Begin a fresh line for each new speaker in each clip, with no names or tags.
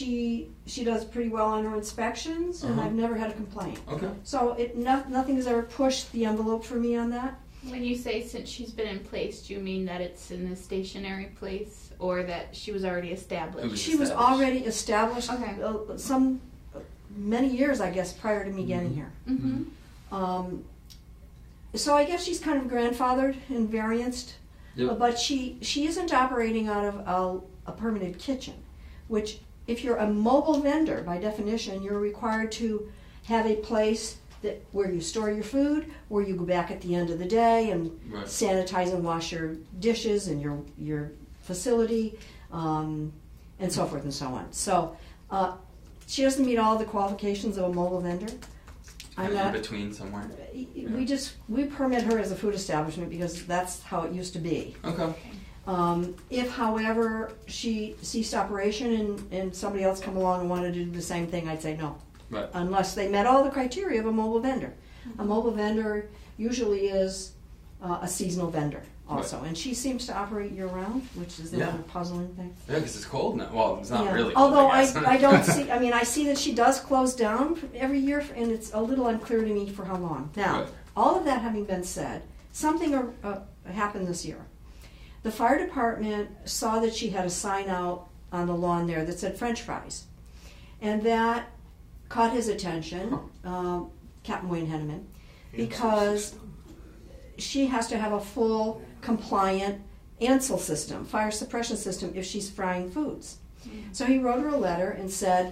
she she does pretty well on her inspections, and
Uh-huh.
I've never had a complaint.
Okay.
So it no, nothing has ever pushed the envelope for me on that.
When you say since she's been in place, do you mean that it's in a stationary place or that she was already
It was-
established?
She was
established.
already established
Okay.
uh, some many years, I guess, prior to me getting
Mhm.
here.
Mm-hmm.
Um, so I guess she's kind of grandfathered and varianced,
Yep.
but she she isn't operating out of a, a permanent kitchen, which if you're a mobile vendor by definition, you're required to have a place that where you store your food, where you go back at the end of the day and
Right.
sanitize and wash your dishes and your your facility, um, and so forth and so on. So uh, she doesn't meet all the qualifications of a mobile vendor. I'm
Kind of
not
in between somewhere.
we just, we permit her as a food establishment because that's how it used to be.
Okay.
Um, if however she ceased operation and, and somebody else come along and wanted to do the same thing, I'd say no.
Right.
Unless they met all the criteria of a mobile vendor. A mobile vendor usually is uh, a seasonal vendor also. And she seems to operate year round, which is the
Yeah.
other puzzling thing.
Yeah, because it's cold now. Well, it's not
Yeah.
really. Cold,
Although
I, guess.
I, I don't see, I mean, I see that she does close down every year, and it's a little unclear to me for how long. Now,
Right.
all of that having been said, something uh, uh, happened this year. The fire department saw that she had a sign out on the lawn there that said French fries, and that caught his attention, um, Captain Wayne Henneman, because she has to have a full compliant ANSEL system, fire suppression system, if she's frying foods. So he wrote her a letter and said,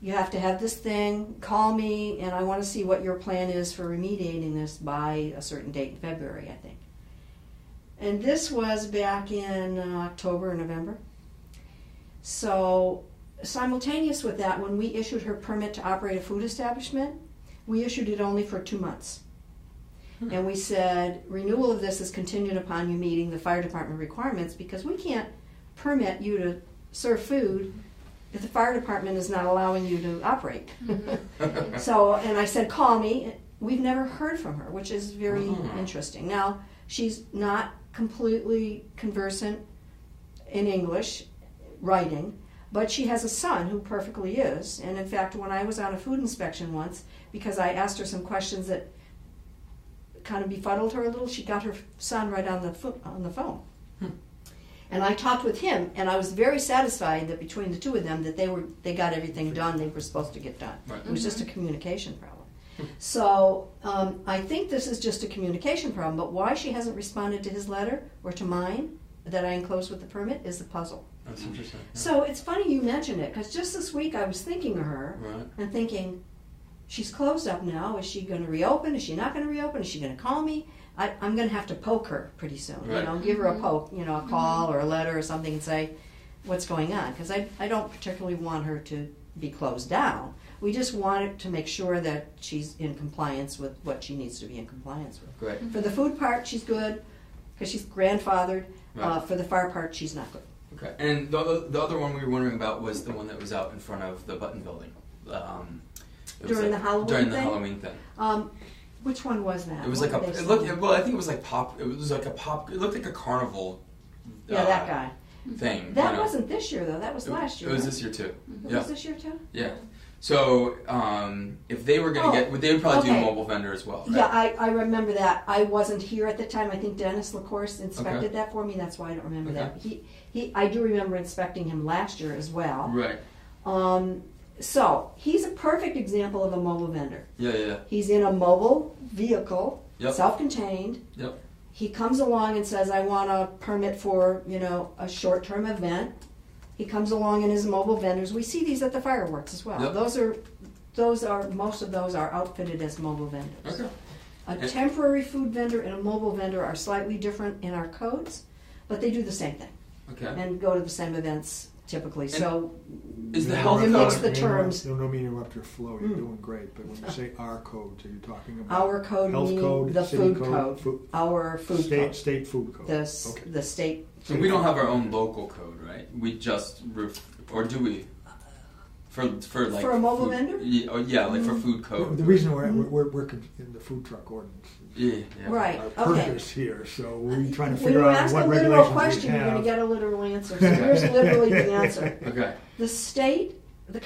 You have to have this thing, call me, and I want to see what your plan is for remediating this by a certain date in February, I think. And this was back in uh, October or November. So, simultaneous with that, when we issued her permit to operate a food establishment, we issued it only for two months. And we said, renewal of this is contingent upon you meeting the fire department requirements because we can't permit you to serve food if the fire department is not allowing you to operate. so, and I said, call me. We've never heard from her, which is very
Mhm.
interesting. Now, she's not completely conversant in English, writing, but she has a son who perfectly is. And in fact, when I was on a food inspection once, because I asked her some questions that kind of befuddled her a little, she got her son right on the fo- on the phone. And I talked with him, and I was very satisfied that between the two of them, that they were they got everything done they were supposed to get done.
Right.
It was just a communication problem. So um, I think this is just a communication problem. But why she hasn't responded to his letter or to mine that I enclosed with the permit is the puzzle.
That's interesting. yeah.
So it's funny you mentioned it because just this week I was thinking of her
Right.
and thinking, she's closed up now. Is she going to reopen? Is she not going to reopen? Is she going to call me? I, I'm going to have to poke her pretty soon.
Right.
You know, give her a poke, you know, a call or a letter or something and say, what's going on? Because I, I don't particularly want her to be closed down. We just want it to make sure that she's in compliance with what she needs to be in compliance with.
Great.
For the food part, she's good because she's grandfathered. Uh,
Right.
for the fire part, she's not good.
Okay. And the other, the other one we were wondering about was the one that was out in front of the Button Building. Um, it was
During
like-
the Halloween
During the
thing?
Halloween thing.
Um, which one was that?
It was
What
like a.
did they
It looked.
say?
It, well, I think it was like pop. It was like a pop. It looked like a carnival.
yeah,
uh,
that guy.
Thing.
That
you know.
wasn't this year though. That was
It-
last year.
It was
right?
this year too.
It
Yeah.
was this year too.
Yeah. So um, if they were gonna
Oh,
get, would they would probably do
okay.
a mobile vendor as well? Right?
Yeah, I, I remember that. I wasn't here at the time. I think Dennis LaCourse inspected that for me. That's why I don't remember that. He he. I do remember inspecting him last year as well.
Right.
Um, so he's a perfect example of a mobile vendor.
Yeah. Yeah. yeah.
He's in a mobile vehicle,
Yep.
self-contained.
Yep.
He comes along and says, "I want a permit for you know a short-term event." He comes along in his mobile vendors. We see these at the fireworks as well.
Yep.
Those are, those are most of those are outfitted as mobile vendors.
Okay.
A
And-
temporary food vendor and a mobile vendor are slightly different in our codes, but they do the same thing
Okay.
and go to the same events typically. So
Is the
You
health
It
code?
makes the
you know,
terms.
You don't mean to interrupt your flow. You're
Mm.
doing great, but when you say our codes, are you talking about
our code
health
meaning
code,
the
city
food
code,
code,
food-
our food
state
code,
state food code?
the s-
okay.
the state.
So we don't have our own local code, right? We just roof, or do we? For for like
For a mobile
food-
vendor? Mm-hmm.
Yeah, oh, yeah, like for food
The
code.
the reason we're,
Hmm.
we're, we're, we're con- in the food truck ordinance,
Yeah, yeah.
Right.
our
Okay.
purpose here, so we're trying to
When
figure
you
out
ask
what
a literal
regulations we
question, you're going to get
have.
a literal answer. So here's literally the answer.
Okay.
The state